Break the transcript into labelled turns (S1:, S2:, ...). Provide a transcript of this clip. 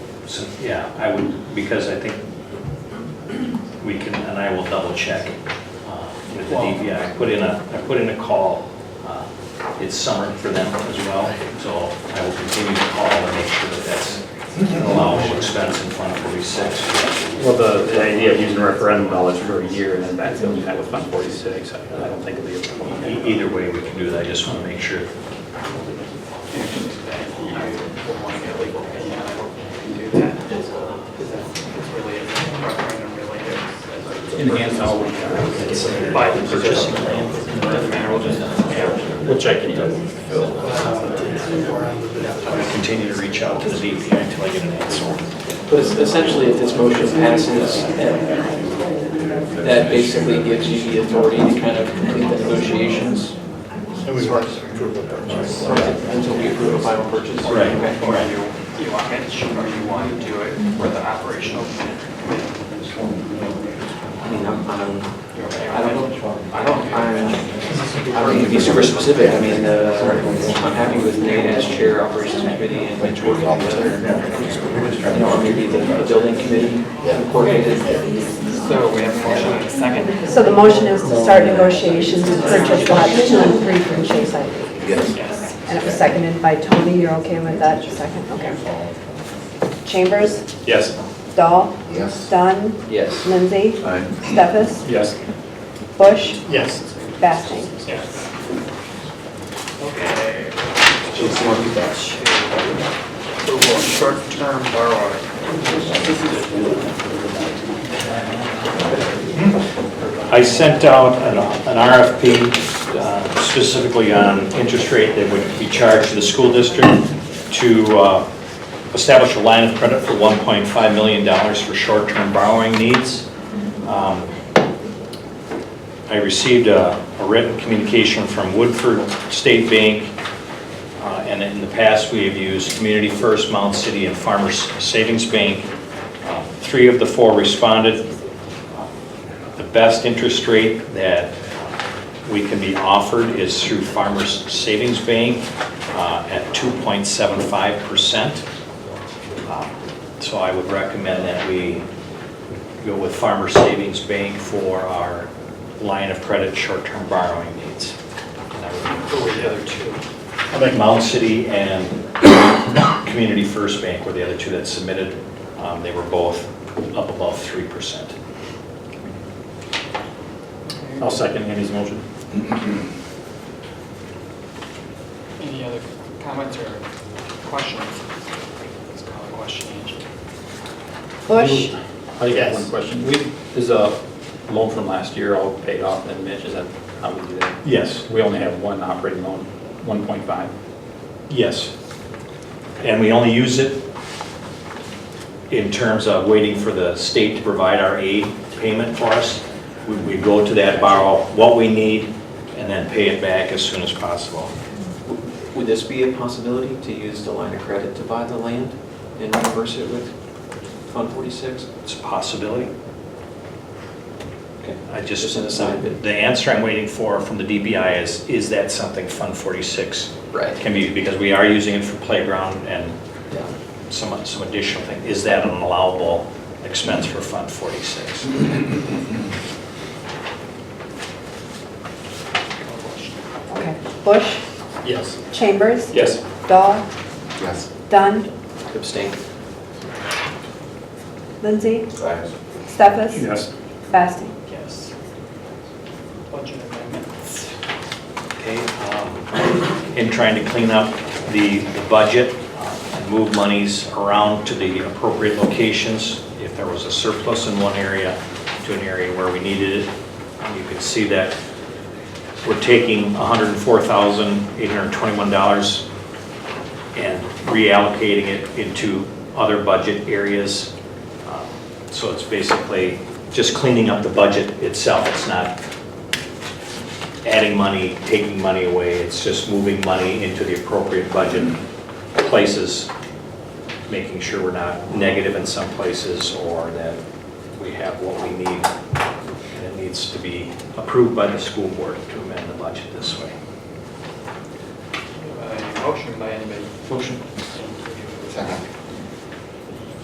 S1: So, yeah, I would, because I think we can, and I will double check uh, with the DPI. I put in a, I put in a call. uh, It's summer for them as well, so I will continue to call and make sure that that's an allowable expense in Fund 46.
S2: Well, the, the idea of using referendum dollars for a year and then backfilling that with Fund 46, I I don't think it'll be a problem.
S1: E- Either way, we can do that, I just want to make sure.
S3: Enhance all we have. By the purchasing plan. Which I can do.
S1: I'm going to continue to reach out to the DPI until I get an answer.
S4: But es- essentially, if this motion passes, then that basically gives you the authority to kind of complete the negotiations
S5: And we want to approve the purchase.
S4: until we approve a final purchase.
S1: Right.
S6: Or you, you want it, or you want to do it for the operational committee?
S4: I mean, I'm, I'm,
S6: You're okay
S4: I
S6: with
S4: don't
S6: it?
S4: know.
S6: I don't
S4: I'm, I don't need to be super specific. I mean, uh, I'm happy with Nate as chair, operations committee, and Mitch working on the, you know, or maybe the the building committee coordinated.
S6: So we have a motion and a second.
S7: So the motion is to start negotiations to purchase lots two and three from Chase Ivy.
S6: Yes.
S7: And it was seconded by Tony, you're okay with that, second, okay. Chambers,
S2: Yes.
S7: Dahl,
S5: Yes.
S7: Dunn,
S4: Yes.
S7: Lindsay, Steffes,
S2: Yes.
S7: Bush,
S5: Yes.
S7: Basting.
S6: Yes. Okay. Approval of short-term borrowing.
S1: I sent out an an RFP uh, specifically on interest rate that would be charged to the school district to uh, establish a line of credit for $1.5 million for short-term borrowing needs. Um, I received a a written communication from Woodford State Bank, uh, and in the past, we have used Community First, Mount City, and Farmers Savings Bank. Uh, Three of the four responded the best interest rate that we can be offered is through Farmers Savings Bank uh, at 2.75%. Uh, So I would recommend that we go with Farmers Savings Bank for our line of credit short-term borrowing needs. And that would
S6: Who were the other two?
S1: be Mound City and Community First Bank were the other two that submitted. Um, They were both up above 3%.
S2: I'll second Andy's motion.
S6: Any other comments or questions? Let's call a question. Angie.
S7: Bush,
S2: I got one question. We, is a loan from last year all paid off and Mitch, is that how we do that?
S1: Yes.
S2: We only have one operating loan, 1.5.
S1: Yes. And we only use it in terms of waiting for the state to provide our aid payment for us. We- We go to that, borrow what we need, and then pay it back as soon as possible.
S4: Would this be a possibility to use the line of credit to buy the land and reimburse it with Fund 46?
S1: It's a possibility.
S4: Okay.
S1: I just.
S4: Just an aside, but-
S1: The answer I'm waiting for from the DPI is, is that something Fund 46
S4: Right.
S1: can be, because we are using it for playground and
S4: Yeah.
S1: some, some additional thing. Is that an allowable expense for Fund 46?
S6: Call a question.
S7: okay, Bush,
S5: Yes.
S7: Chambers,
S2: Yes.
S7: Dahl,
S5: Yes.
S7: Dunn,
S4: Abstain.
S7: Lindsay, Steffes,
S2: Yes.
S7: Basting.
S6: Yes. Budget amendments.
S1: Okay, um, in trying to clean up the the budget uh, and move monies around to the appropriate locations, if there was a surplus in one area to an area where we needed it, you can see that we're taking $104,821 and reallocating it into other budget areas. Um, So it's basically just cleaning up the budget itself. It's not adding money, taking money away, it's just moving money into the appropriate budget places, making sure we're not negative in some places, or that we have what we need, and it needs to be approved by the school board to amend the budget this way.
S6: Uh, Motion by anybody? Motion.
S5: Second.